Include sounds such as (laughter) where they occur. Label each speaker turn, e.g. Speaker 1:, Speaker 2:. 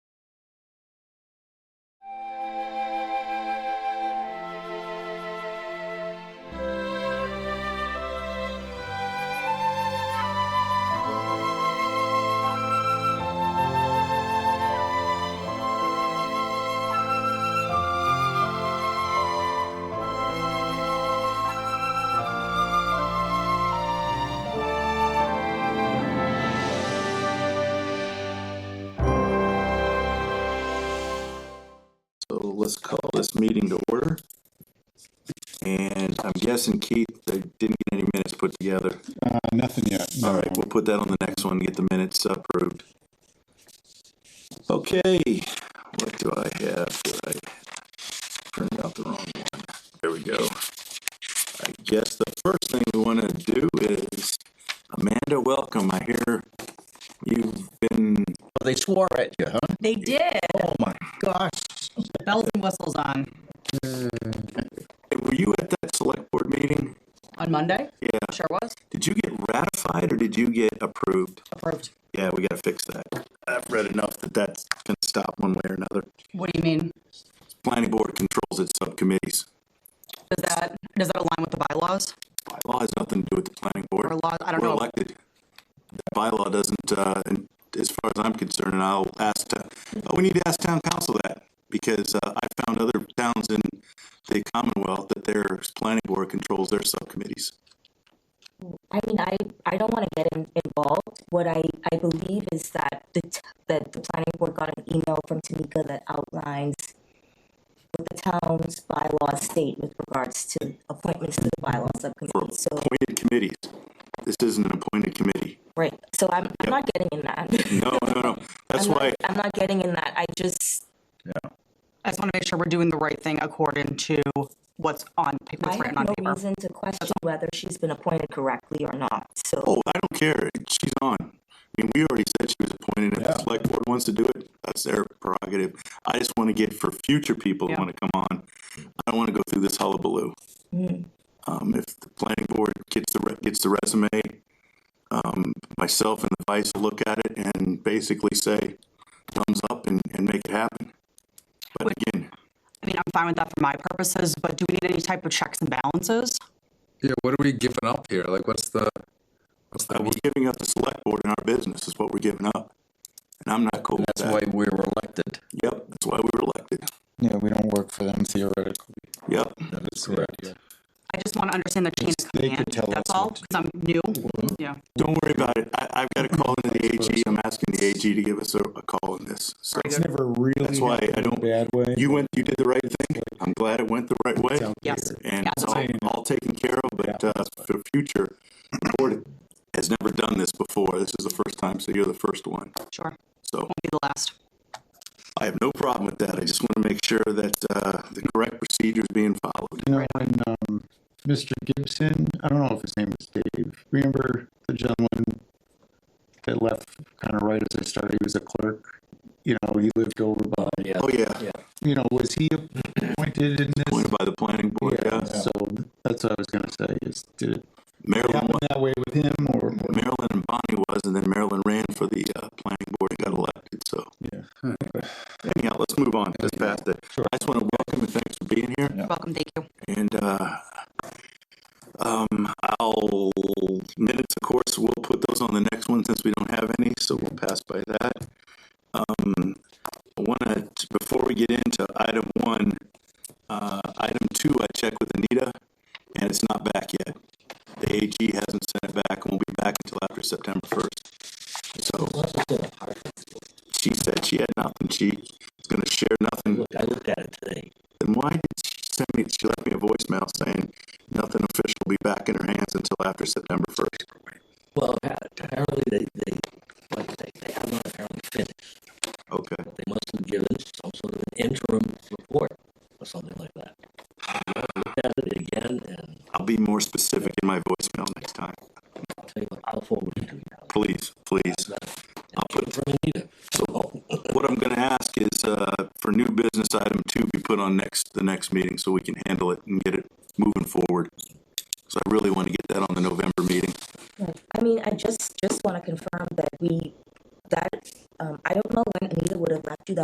Speaker 1: let's call this meeting to order. And I'm guessing Keith, they didn't get any minutes put together.
Speaker 2: Uh, nothing yet.
Speaker 1: All right, we'll put that on the next one, get the minutes approved. Okay, what do I have? Did I print out the wrong one? There we go. I guess the first thing we want to do is, Amanda, welcome. I hear you've been,
Speaker 3: They swore at you, huh?
Speaker 4: They did.
Speaker 3: Oh my gosh.
Speaker 4: Bells and whistles on
Speaker 1: were you at that select board meeting?
Speaker 4: on Monday.
Speaker 1: Yeah.
Speaker 4: Sure was
Speaker 1: Did you get ratified or did you get approved?
Speaker 4: approved.
Speaker 1: Yeah, we gotta fix that. I've read enough that that's gonna stop one way or another.
Speaker 4: What do you mean?
Speaker 1: Planning board controls its subcommittees.
Speaker 4: Does that does that align with the bylaws?
Speaker 1: Bylaw has nothing to do with the planning board.
Speaker 4: Or law- I don't
Speaker 1: We're
Speaker 4: know.
Speaker 1: elected. That bylaw doesn't, uh, and as far as I'm concerned, and I'll ask, to- oh, we need to ask town council that. Because, uh, I found other towns in the Commonwealth that their planning board controls their subcommittees.
Speaker 5: I mean, I, I don't want to get in, involved. What I, I believe is that the, t- that the planning board got an email from Tamika that outlines what the town's bylaws state with regards to appointments to the bylaw subcommittee. So,
Speaker 1: Appointed committees. This isn't an appointed committee.
Speaker 5: right, so I'm, I'm not getting in that.
Speaker 1: No, no, no. That's
Speaker 5: (laughs) I'm not-
Speaker 1: why,
Speaker 5: I'm not getting in that. I just,
Speaker 4: I just want to make sure we're doing the right thing according to what's on pa-
Speaker 5: I
Speaker 4: what's
Speaker 5: have
Speaker 4: written on
Speaker 5: no
Speaker 4: paper.
Speaker 5: reason to question whether she's been appointed correctly or not, so.
Speaker 1: Oh, I don't care. She's on. I mean, we already said she was appointed. If the select board wants to do it, that's their prerogative. I just want to get for future people who
Speaker 4: Yeah.
Speaker 1: want to come on. I don't want to go through this hullabaloo. Um, if the planning board gets the, re- gets the resume, um, myself and the vice will look at it and basically say thumbs up and, and make it happen. But again,
Speaker 4: I mean, I'm fine with that for my purposes, but do we need any type of checks and balances?
Speaker 6: Yeah, what are we giving up here? Like, what's the, what's
Speaker 1: uh,
Speaker 6: the,
Speaker 1: we're
Speaker 6: meat?
Speaker 1: giving up the select board in our business is what we're giving up. And I'm not cool with
Speaker 3: That's
Speaker 1: that.
Speaker 3: why we were elected.
Speaker 1: Yep, that's why we were elected.
Speaker 2: Yeah, we don't work for them theoretically.
Speaker 1: Yep.
Speaker 2: That's correct.
Speaker 4: I just want to understand the chain of
Speaker 2: They
Speaker 4: command.
Speaker 2: could tell
Speaker 4: That's
Speaker 2: us
Speaker 4: all,
Speaker 2: what
Speaker 4: because I'm new. Yeah.
Speaker 1: Don't worry about it. I, I've got a call into the AG. I'm asking the AG to give us a, a call on this. So
Speaker 2: It's never really.
Speaker 1: that's why I
Speaker 2: happened in a
Speaker 1: don't,
Speaker 2: Bad way.
Speaker 1: you went, you did the right thing. I'm glad it went the right way.
Speaker 2: out
Speaker 4: Yes.
Speaker 1: And
Speaker 4: Yeah.
Speaker 1: it's all, all taken care of, but, uh, for future, the board has never done this before. This is the first time, so you're the first one.
Speaker 4: Sure.
Speaker 1: So
Speaker 4: Be the last.
Speaker 1: I have no problem with that. I just want to make sure that, uh, the correct procedure is being followed.
Speaker 2: You know, when, um, Mr. Gibson, I don't know if his name was Dave, remember the gentleman that left kind of right as I started, he was a clerk? You know, he lived over by,
Speaker 1: Oh, yeah.
Speaker 2: you know, was he appointed in this?
Speaker 1: Appointed by the planning board,
Speaker 2: Yeah,
Speaker 1: yeah.
Speaker 2: so that's what I was gonna say, is did it
Speaker 1: Marilyn,
Speaker 2: happen that way with him or?
Speaker 1: Marilyn and Bonnie was, and then Marilyn ran for the, uh, planning board and got elected, so.
Speaker 2: Yeah.
Speaker 1: Anyhow, let's move on. Let's pass that. I just want to welcome and thanks for being here.
Speaker 4: Welcome. Thank you.
Speaker 1: And uh, um, I'll minutes, of course, we'll put those on the next one since we don't have any, so we'll pass by that. Um, I want to before we get into item one, uh, item two, I checked with Anita, and it's not back yet. The AG hasn't sent it back, and won't be back until after September first. So she said she had nothing. She was going to share nothing
Speaker 7: I looked at it today.
Speaker 1: then why did she send me, she left me a voicemail saying nothing official will be back in her hands until after September first.
Speaker 7: Well, apparently they, they, like, they, they have not apparently finished.
Speaker 1: Okay,
Speaker 7: They must have given some sort of an interim report or something like that. I looked at it again and
Speaker 1: I'll be more specific in my voicemail next time.
Speaker 7: I'll tell you what, I'll forward it to you. now.
Speaker 1: Please, please. I'll put
Speaker 7: It's from Anita.
Speaker 1: So what I'm gonna ask is, uh, for new business item two be put on next, the next meeting so we can handle it and get it moving forward. So I really wanna get that on the November Oh.
Speaker 5: um,